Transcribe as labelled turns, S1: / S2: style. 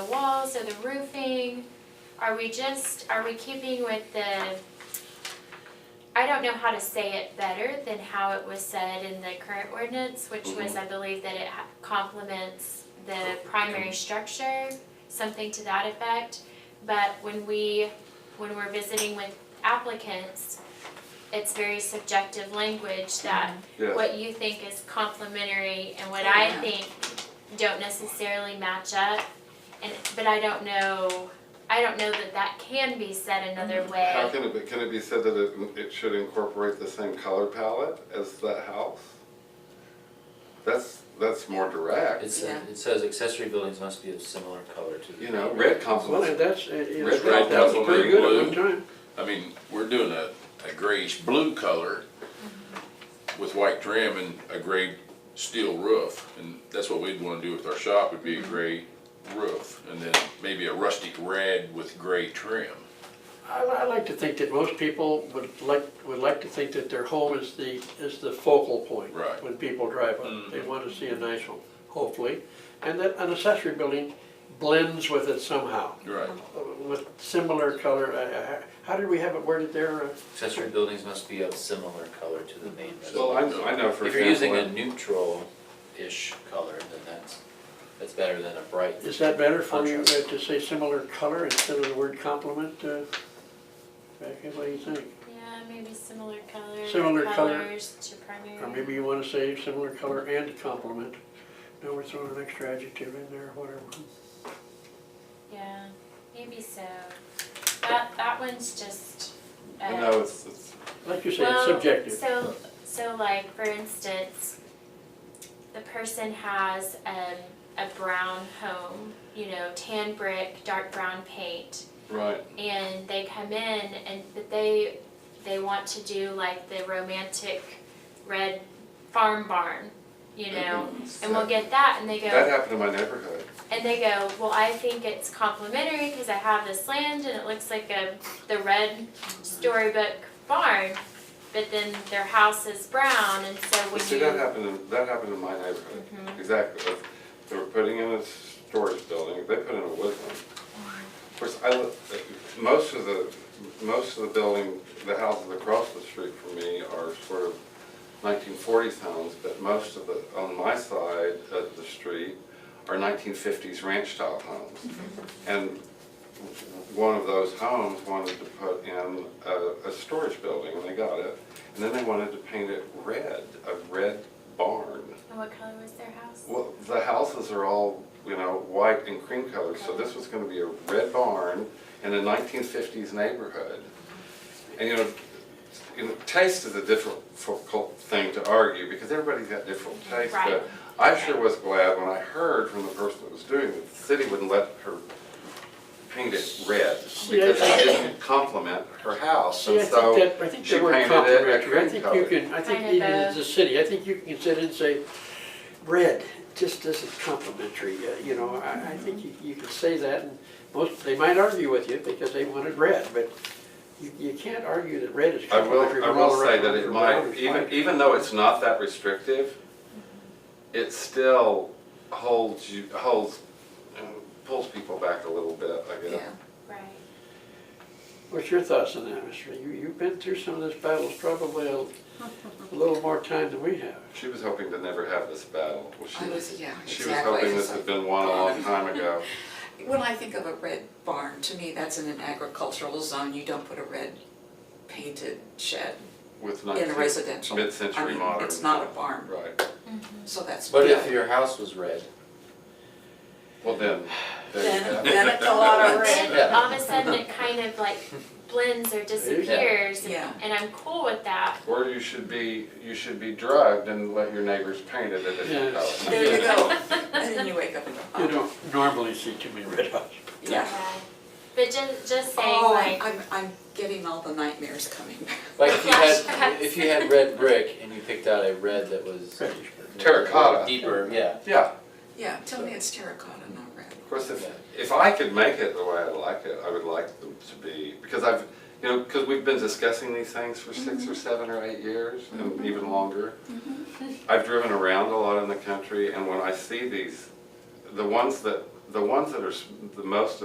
S1: also the roofing, are we just, are we keeping with the, I don't know how to say it better than how it was said in the current ordinance, which was, I believe that it ha- complements the primary structure, something to that effect. But when we, when we're visiting with applicants, it's very subjective language that
S2: Yes,
S1: what you think is complimentary and what I think don't necessarily match up. And, but I don't know, I don't know that that can be said another
S2: how
S1: way.
S2: can it be, can it be said that it, it should incorporate the same color palette as that house? That's, that's more direct,
S3: It says,
S4: Yeah.
S3: it says accessory buildings must be of similar color to the.
S2: you know, red
S5: Well,
S2: complements,
S5: and that's, uh, you know,
S2: Red
S5: that was
S6: Rifle
S5: pretty
S6: Ring
S5: good at one
S6: Blue.
S5: time.
S6: I mean, we're doing a, a grayish blue color with white trim and a gray steel roof. And that's what we'd wanna do with our shop, would be a gray roof and then maybe a rustic red with gray trim.
S5: I, I like to think that most people would like, would like to think that their home is the, is the focal point.
S6: Right.
S5: When people drive up, they want to see a nice home, hopefully. And that an accessory building blends with it somehow,
S6: Right.
S5: uh, with similar color. uh, uh, How did we have it worded there? Uh,
S3: Accessory buildings must be of similar color to the main
S2: well,
S3: residence.
S2: I, I know for
S3: If you're using a
S2: example,
S3: neutral-ish color, then that's, that's better than a bright.
S5: Is that better for you uh,
S3: Contrast.
S5: to say similar color instead of the word compliment? uh, Becky, what do you think?
S1: Yeah, maybe similar color,
S5: Similar color.
S1: colors to
S5: Or
S1: primary.
S5: maybe you wanna say similar color and complement. Now we're throwing an extra adjective in there, whatever.
S1: Yeah, maybe so. That, that one's just. uh,
S2: I know it's, it's,
S5: Like you say, it's
S1: Well,
S5: subjective.
S1: So, so like, for instance, the person has um, a brown home, you know, tan brick, dark brown paint,
S2: right,
S1: and they come in and but they they want to do like the romantic red farm barn, you know, and we'll get that, and they go,
S2: Mm-hmm. that happened in my neighborhood.
S1: and they go, well, I think it's complimentary because I have this land and it looks like a the red storybook barn, but then their house is brown, and so
S2: Well,
S1: when
S2: See,
S1: you
S2: that happened, in that happened in my neighborhood,
S1: Mhm.
S2: exactly. They were putting in a storage building, they put in a wood one. Of course, I, li- most of the, most of the building, the houses across the street from me are sort of nineteen forties homes, but most of the, on my side of the street are nineteen fifties ranch style homes.
S1: Mm-hmm.
S2: And one of those homes wanted to put in a, a storage building, and they got it. And then they wanted to paint it red, a red barn.
S1: and what color was their house?
S2: Well, the houses are all, you know, white and cream colors, so this was gonna be a red barn in a nineteen fifties neighborhood. And you know, you know, taste is a difficult thing to argue, because everybody's got different tastes,
S1: Right.
S2: but I sure was glad when I heard from the person that was doing it, the city wouldn't let her paint it red, because
S5: I
S2: it didn't complement her house,
S5: See,
S2: and
S5: I think
S2: so
S5: that, I think
S2: she
S5: the word
S2: painted it a
S5: complimentary, I
S2: cream
S5: think you
S2: color.
S5: can, I think
S1: Kind of
S5: even as
S1: a-
S5: a city, I think you can sit and say, red just isn't complimentary, uh, you know, I, I think you, you can say that and most, they might argue with you because they wanted red, but you, you can't argue that red is
S2: I will,
S5: complimentary.
S2: I
S5: when
S2: will
S5: all
S2: say
S5: around
S2: that
S5: the
S2: it
S5: brown
S2: might,
S5: is
S2: even,
S5: white.
S2: even though it's not that restrictive, it still holds you, holds, uh, pulls people back a little bit, I guess.
S1: Right.
S5: What's your thoughts on that, Mr. You, you've been through some of this battles probably a a little more time than we have.
S2: She was hoping to never have this battle. Well, she
S4: I was- yeah,
S2: She was
S4: exactly.
S2: hoping
S4: It's
S2: this
S4: like-
S2: had been won a long time ago.
S4: When I think of a red barn, to me, that's in an agricultural zone, you don't put a red painted shed
S2: with
S4: in a
S2: 19
S4: residential. I
S2: Mid-century
S4: mean,
S2: modern.
S4: It's not a barn,
S2: Right,
S4: so that's.
S3: But
S4: yeah.
S3: if your house was red,
S2: well then, there you
S4: Then-
S2: go.
S4: then it's a lot of
S1: But
S4: red.
S1: then all of a sudden it kind of like blends or disappears, and-
S4: Yeah.
S1: and I'm cool with that.
S2: Or you should be, you should be drugged and let your neighbors paint it a different
S5: Yes.
S2: color.
S4: There you go, and then you wake up and go,
S5: You
S4: oh,
S5: don't normally see too many red houses.
S4: yeah.
S1: But just, just saying
S4: Oh,
S1: like,
S4: I'm, I'm getting all the nightmares coming back.
S3: like if you
S1: Flashbacks.
S3: had, if you had red brick and you picked out a red that was
S2: Terracotta.
S3: deeper, yeah.
S2: Yeah,
S4: Yeah, tell me it's terracotta, not red.
S2: Of course, if, if I could make it the way I like it, I would like them to be, because I've, you know, because we've been discussing these things for six or seven or eight years, and even longer. I've driven around a lot in the country, and when I see these, the ones that, the ones that are s- the most